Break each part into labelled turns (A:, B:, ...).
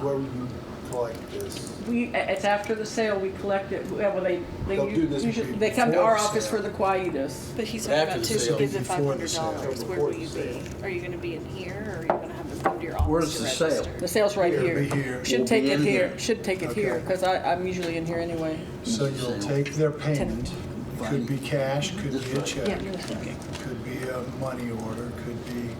A: Where would you collect this?
B: We, it's after the sale, we collect it, well, they, they
A: They'll do this
B: usually,
A: be-
B: they come to
A: before
B: our
A: the
B: office
A: sale.
B: for the quietus.
C: But he's
D: But
C: talking
D: after
C: about
D: the
C: two
D: sale.
C: bids of five
A: Before the
C: hundred
A: sale.
C: dollars, where
A: Before
C: will
A: the
C: you be?
A: sale.
C: Are you gonna be in here, or are you gonna have to come to your office
D: Where's
C: to
D: the sale?
C: register?
B: The sale's right
A: Here,
B: here.
A: be here.
B: Should
D: We'll
B: take
D: be
B: it
D: in
B: here,
D: here.
B: should take it
A: Okay.
B: here, because I, I'm usually in here anyway.
A: So you'll take their payment, could be cash, could
D: This
A: be a
D: way.
A: check, could be a money order, could be,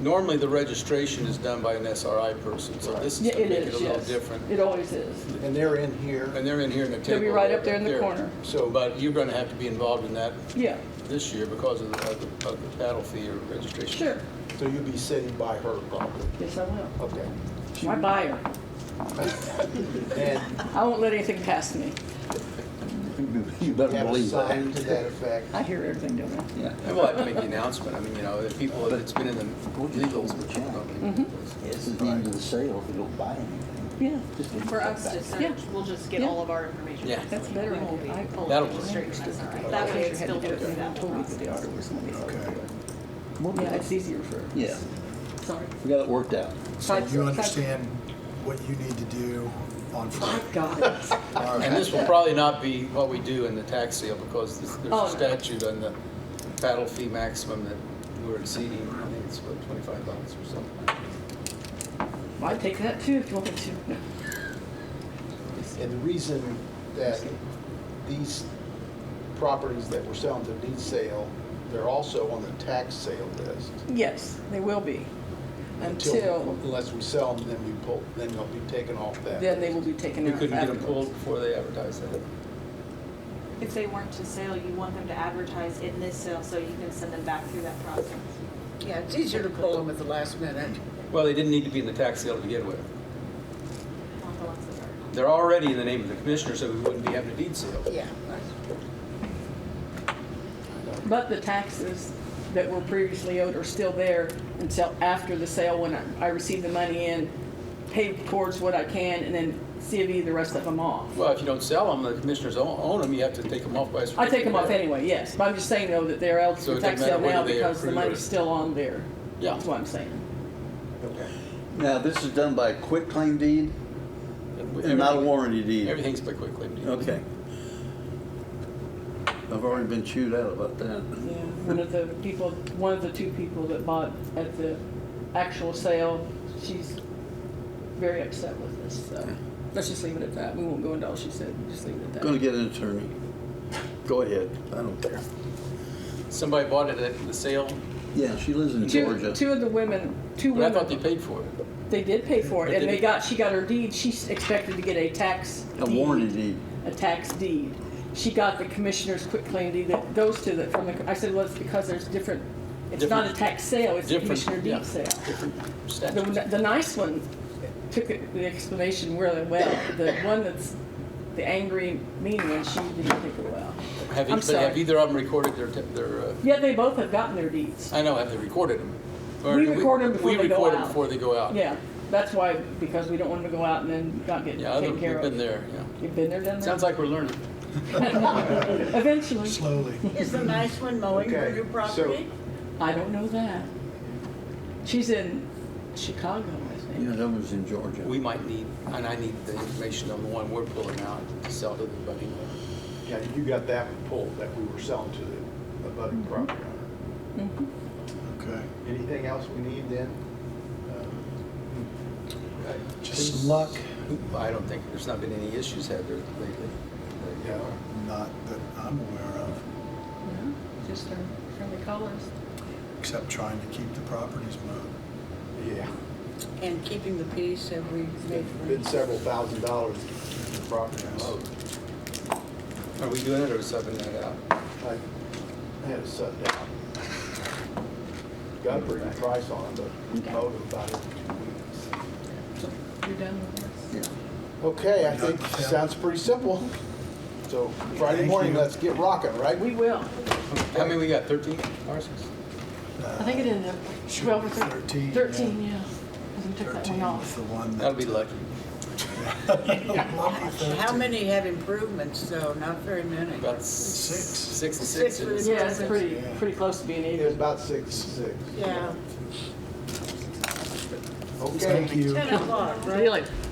D: Normally, the registration is done by an SRI person, so this is
B: Yeah,
D: gonna
B: it
D: make it a
B: is,
D: little
B: yes.
D: different.
B: It always is.
A: and they're in here.
D: And they're in here in the table.
B: They'll be right up there in the corner.
D: So, but you're gonna have to be involved in that
B: Yeah,
D: this year because of the, of the- of the paddle fee or registration.
B: sure.
A: So you'll be sitting by her probably.
B: Yes, I will.
A: Okay.
B: My buyer.
A: And
B: I won't let anything pass me.
E: You better
A: have a
E: believe
A: sign
E: that.
A: to that effect.
B: I hear everything, don't I?
E: Yeah.
D: And we'll have to make the announcement. I mean, you know, if people, if it's been in the Mm-hmm. legals, but you don't.
E: This is the end of the sale if we don't buy anything.
B: Yeah,
E: Just leave
C: For
E: it
C: us
E: back.
C: to
B: Yeah.
C: search, we'll just get
B: Yeah.
C: all of our information.
D: Yeah.
B: That's a better
C: We won't
B: idea.
C: be
B: I-
C: pulled
D: That'll
C: from
D: work.
C: the street, that's all right.
B: I
C: That way
B: wish I
C: it
B: had to
C: still
B: do it
C: goes
B: when I
C: down.
B: told you that the auditor was gonna be out there,
A: Okay.
E: We'll be-
B: but- Yeah, it's easier for.
E: Yeah.
B: Sorry.
E: We got it worked out.
A: So
B: Side-
A: you
B: side-
A: understand what you need to do on
B: I
A: Friday.
B: got it.
A: All
D: And
A: right.
D: this will probably not be what we do in the tax sale because there's there's
B: Oh, no.
D: a statute on the paddle fee maximum that we're exceeding. I think it's what, twenty-five bucks or something.
B: I'd take that too if you want me to.
A: And the reason that these properties that we're selling to deed sale, they're also on the tax sale list.
B: Yes, they will be. Until,
A: Unless we sell them, then we pull, then they'll be taken off that.
B: then they will be taken
D: We
B: out.
D: couldn't get them
B: afterwards.
D: pulled before they advertise that.
F: If they weren't to sale, you want them to advertise in this sale, so you can send them back through that process.
G: Yeah, it's easier to pull them at the last minute.
D: Well, they didn't need to be in the tax sale to begin with.
F: on the ones that are-
D: They're already in the name of the commissioner, so we wouldn't be having a deed sale.
G: Yeah.
B: But the taxes that were previously owed are still there until after the sale, when I, I receive the money in, pay towards what I can, and then CV the rest of them off.
D: Well, if you don't sell them, the commissioners own, own them, you have to take them off by. a
B: I take them off
D: certificate.
B: anyway, yes, but I'm just saying though that they're eligible
D: So it
B: for
D: doesn't
B: tax sale
D: matter
B: now
D: whether they
B: because the
D: approve it.
B: money's still on there.
D: Yeah.
B: That's what I'm saying.
A: Okay.
E: Now, this is done by a quick claim deed and not a
D: Everything-
E: warranty deed.
D: Everything's by quick claim deed.
E: Okay. I've already been chewed out about that.
B: Yeah, one of the people, one of the two people that bought at the actual sale, she's very upset with us, so. Let's just leave it at that. We won't go into all she said. Just leave it at
E: Gonna
B: that.
E: get an attorney. Go ahead. I don't care.
D: Somebody bought it at the sale,
E: Yeah, she lives in
B: Two,
E: Georgia.
B: two of the women, two
D: but I thought they
B: women,
D: paid for it.
B: they did pay for
D: But
B: it and
D: did
B: they
D: it-
B: got, she got her deed. She expected to get a tax
E: A
B: deed.
E: warranty deed.
B: a tax deed. She got the commissioner's quitclaim deed that goes to the, from the, I said, well, it's because there's different, it's not a
D: Different-
B: tax sale, it's a
D: different-
B: commissioner
D: yeah.
B: deed sale. The,
D: Statute.
B: the nice one took it- the explanation really well. The one that's the angry, mean one, she didn't take it well.
D: Have
B: I'm
D: each- have
B: sorry.
D: either of them recorded their, te- their, uh,
B: Yet they both have gotten their deeds.
D: I know, have they recorded them?
B: We record 'em before
D: We
B: they go
D: record 'em
B: out.
D: before they go out.
B: Yeah, that's why, because we don't want them to go out and then not get
D: Yeah, other-
B: taken
D: we've
B: care
D: been
B: of.
D: there, yeah.
B: You've been there, done
D: Sounds
B: that?
D: like we're learning.
B: Eventually.
A: Slowly.
G: Is the nice one mowing her
A: Okay,
G: new
A: so-
G: property?
B: I don't know that. She's in Chicago, I think.
E: Yeah, that was in Georgia.
D: We might need, and I need the information on the one we're pulling out to sell to the budding.
A: Yeah, you got that one pulled that we were selling to the abutting property owner.
H: Okay.
A: Anything else we need then? Uh,
H: Just some luck,
D: I don't think, there's not been any issues had there lately.
A: Yeah.
H: not that I'm aware of,
B: Just her friendly callers.
H: except trying to keep the properties moved.
A: Yeah.
G: And keeping the peace, have we made
A: Been several thousand dollars to keep the property mowed.
D: Are we doing it or subbing that out?
A: I had it set down. Got a pretty good price on it, but mowed it about every two weeks.
B: You're done with this?
E: Yeah.
A: Okay, I think, sounds pretty simple. So Friday
H: Thank
A: morning,
H: you.
A: let's get rocking, right?
B: We will.
D: How many we got, 13 parcels?
B: I think it ended up
H: Should
B: twelve or
H: be
B: thirteen.
H: 13, yeah.
B: Thirteen, yeah. 'Cause we took that one
H: 13 Uh, was
B: off.
H: the one that.
D: That'll be lucky.
G: improvements? How many have improvements, though? Not very many.
D: About
H: Six.
D: six. Six and
G: Six
D: six.
G: for the-
B: Yeah, it's pretty,
H: Yeah.
B: pretty close to being
A: It was
B: even.
A: about six to six.
G: Yeah.
I: Okay.
J: Thank you.
H: Ten o'clock, right?
G: Really?